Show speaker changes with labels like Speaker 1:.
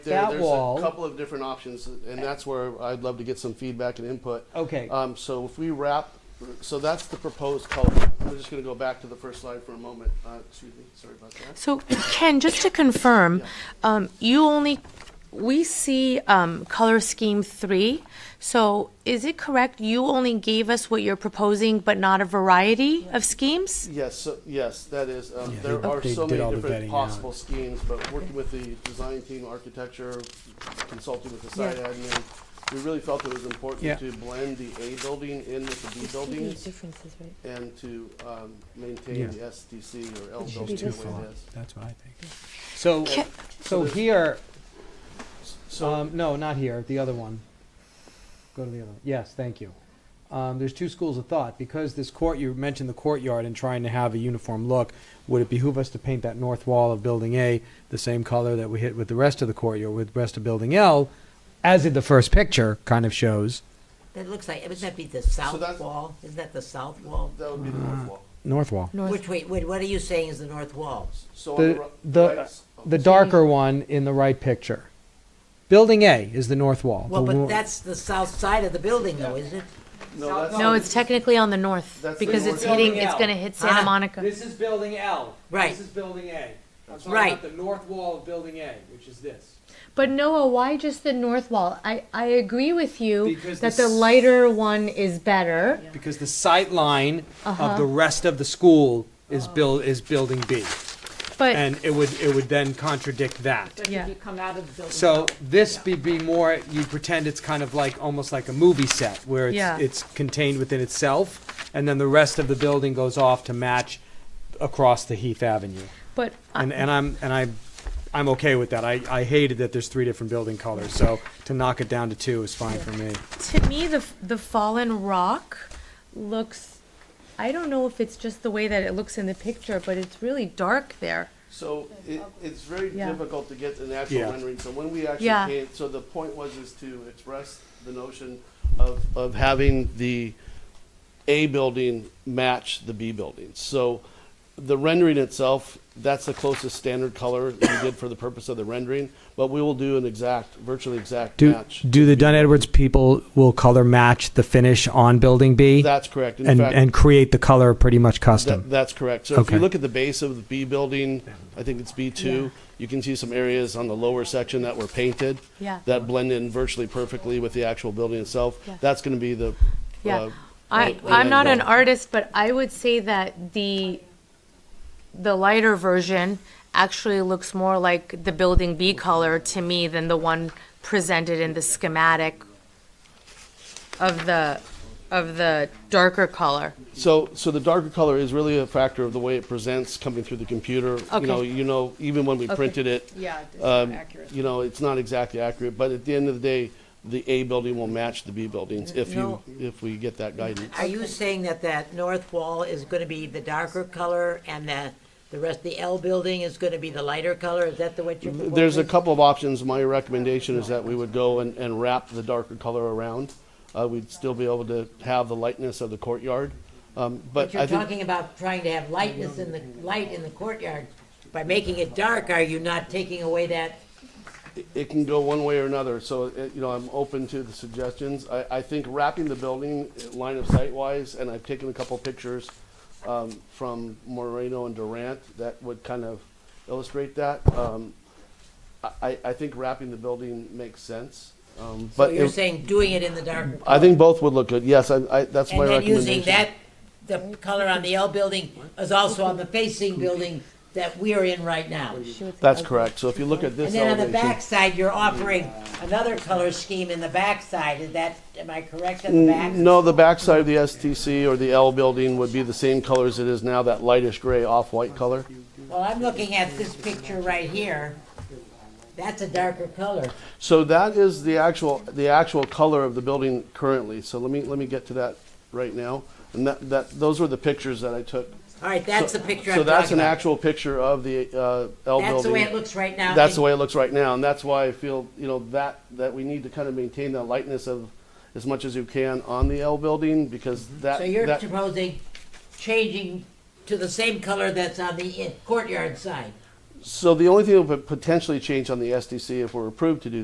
Speaker 1: there,
Speaker 2: That
Speaker 1: there's
Speaker 2: wall.
Speaker 1: a couple of different options, and that's where I'd love to get some feedback and input.
Speaker 2: Okay.
Speaker 1: Um, so if we wrap, so that's the proposed color. We're just going to go back to the first slide for a moment. Uh, excuse me, sorry about that.
Speaker 3: So Ken, just to confirm, um, you only, we see um, color scheme three. So is it correct, you only gave us what you're proposing, but not a variety of schemes?
Speaker 1: Yes, so, yes, that is. Um,
Speaker 4: Yeah, they-
Speaker 1: there are
Speaker 4: they
Speaker 1: so
Speaker 4: did all
Speaker 1: many
Speaker 4: the
Speaker 1: different
Speaker 4: vetting
Speaker 1: possible schemes, but working with the design team, architecture, consulting with the site
Speaker 3: Yeah.
Speaker 1: admin, we really felt it was important
Speaker 4: Yeah.
Speaker 1: to blend the A building in with the B buildings
Speaker 5: Differences, right?
Speaker 1: and to um, maintain
Speaker 4: Yeah.
Speaker 1: the SDC or L
Speaker 5: should
Speaker 1: building
Speaker 5: be
Speaker 1: the way
Speaker 5: different.
Speaker 1: it is.
Speaker 4: That's what I think.
Speaker 2: So,
Speaker 3: Ca-
Speaker 2: so here,
Speaker 1: So
Speaker 2: um, no, not here, the other one. Go to the other, one. yes, thank you. Um, there's two schools of thought, because this court, you mentioned the courtyard and trying to have a uniform look, would it behoove us to paint that north wall of Building A the same color that we hit with the rest of the courtyard, with the rest of Building L, as in the first picture kind of shows,
Speaker 6: That looks like, wouldn't that be the south
Speaker 1: that's-
Speaker 6: wall? Isn't that the south wall?
Speaker 1: that would be the
Speaker 2: Mm-hmm.
Speaker 1: north wall.
Speaker 2: north wall.
Speaker 6: Which, wait, wait, what are you saying is the north wall?
Speaker 1: So on
Speaker 2: The,
Speaker 1: ri- right
Speaker 2: the,
Speaker 1: s- oh,
Speaker 2: the darker one in the right picture. Building A is the north wall.
Speaker 6: Well,
Speaker 2: the
Speaker 6: but
Speaker 2: wo-
Speaker 6: that's the south side of the building though, isn't it?
Speaker 1: no, that's
Speaker 3: No, it's technically on the north,
Speaker 1: That's the
Speaker 3: because it's
Speaker 1: north.
Speaker 3: hitting, it's gonna hit Santa
Speaker 6: Ah.
Speaker 3: Monica.
Speaker 2: This is building L.
Speaker 6: Right.
Speaker 2: This is building A. I'm talking
Speaker 6: Right.
Speaker 2: about the north wall of building A, which is this.
Speaker 3: But Noah, why just the north wall? I, I agree with you
Speaker 2: Because
Speaker 3: that
Speaker 2: the
Speaker 3: the
Speaker 2: s-
Speaker 3: lighter one is better.
Speaker 2: Because the sight line of the rest of the school is build, is building B.
Speaker 3: But,
Speaker 2: And it would, it would then contradict that.
Speaker 3: Yeah.
Speaker 5: If you come out of the building.
Speaker 2: So this be, be more, you pretend it's kind of like, almost like a movie set, where
Speaker 3: Yeah.
Speaker 2: it's, it's contained within itself, and then the rest of the building goes off to match across the Heath Avenue.
Speaker 3: but, uh, I-
Speaker 2: And, and I'm, and I, I'm okay with that. I, I hated that there's three different building colors, so to knock it down to two is fine for me.
Speaker 3: to me, the the fallen rock looks. I don't know if it's just the way that it looks in the picture, but it's really dark there.
Speaker 1: So it, it's very
Speaker 3: Yeah.
Speaker 1: difficult to get an actual
Speaker 2: Yeah.
Speaker 1: rendering, so when we actually
Speaker 3: Yeah.
Speaker 1: came, so the point was is to express the notion of, of having the A building match the B building. So the rendering itself, that's the closest standard color we did for the purpose of the rendering, but we will do an exact, virtually exact
Speaker 2: Do,
Speaker 1: match.
Speaker 2: do the Dunn Edwards people will color match the finish on building B?
Speaker 1: That's correct. In
Speaker 2: And,
Speaker 1: fact,
Speaker 2: and create the color pretty much
Speaker 1: That,
Speaker 2: custom?
Speaker 1: that's correct. So if you
Speaker 2: Okay.
Speaker 1: look at the base of the B building, I think it's B two, you can see some areas on the lower section that were painted.
Speaker 3: Yeah.
Speaker 1: That blend in virtually perfectly with the actual building itself.
Speaker 3: Yeah.
Speaker 1: That's gonna be the,
Speaker 3: Yeah,
Speaker 1: uh,
Speaker 3: I
Speaker 6: Right,
Speaker 3: I'm not an
Speaker 1: right.
Speaker 3: artist, but I would say that the the lighter version actually looks more like the building B color to me than the one presented in the schematic of the of the darker color.
Speaker 1: so, so the darker color is really a factor of the way it presents coming through the computer. You
Speaker 3: Okay.
Speaker 1: know, you know, even when we printed it,
Speaker 5: Yeah, it's
Speaker 1: um,
Speaker 5: not accurate.
Speaker 1: you know, it's not exactly accurate, but at the end of the day, the A building will match the B buildings if you,
Speaker 6: No.
Speaker 1: if we get that guidance.
Speaker 6: Are you saying that that north wall is gonna be the darker color and that the rest, the L building is gonna be the lighter color? Is that the what you're proposing?
Speaker 1: There's a couple of options. My recommendation is that we would go and, and wrap the darker color around. Uh, we'd still be able to have the lightness of the courtyard. Um,
Speaker 6: But
Speaker 1: but
Speaker 6: you're
Speaker 1: I think,
Speaker 6: talking about trying to have lightness in the, light in the courtyard. By making it dark, are you not taking away that?
Speaker 1: it can go one way or another, so, uh, you know, I'm open to the suggestions. I, I think wrapping the building uh, line of sight wise, and I've taken a couple pictures, um, from Moreno and Durant that would kind of illustrate that. Um, I- I, I think wrapping the building makes sense, um,
Speaker 6: So
Speaker 1: but
Speaker 6: you're
Speaker 1: it-
Speaker 6: saying doing it in the darker color?
Speaker 1: I think both would look good, yes, I, I, that's my
Speaker 6: And then
Speaker 1: recommendation.
Speaker 6: using that, the color on the L building is also on the facing building that we are in right now.
Speaker 1: That's correct. So if you look at
Speaker 6: And
Speaker 1: this
Speaker 6: then on the
Speaker 1: elevation,
Speaker 6: backside, you're offering another color scheme in the backside, is that, am I correct on the back?
Speaker 1: N- Mm, no, the backside of the STC or the L building would be the same color as it is now, that lightish gray off-white color.
Speaker 6: Well, I'm looking at this picture right here, that's a darker color.
Speaker 1: So that is the actual, the actual color of the building currently. So let me, let me get to that right now. And that, that, those were the pictures that I took.
Speaker 6: All right, that's the picture I'm
Speaker 1: So
Speaker 6: talking about.
Speaker 1: that's an actual picture of the, uh, L building.
Speaker 6: That's the way it looks right now.
Speaker 1: That's the way it looks right now, and that's why I feel, you know, that, that we need to kind of maintain that lightness of as much as you can on the L building, because that.
Speaker 6: Mm-hmm. So you're
Speaker 1: that-
Speaker 6: proposing changing to the same color that's on the in- courtyard side?
Speaker 1: So the only thing that would potentially change on the SDC if we're approved to do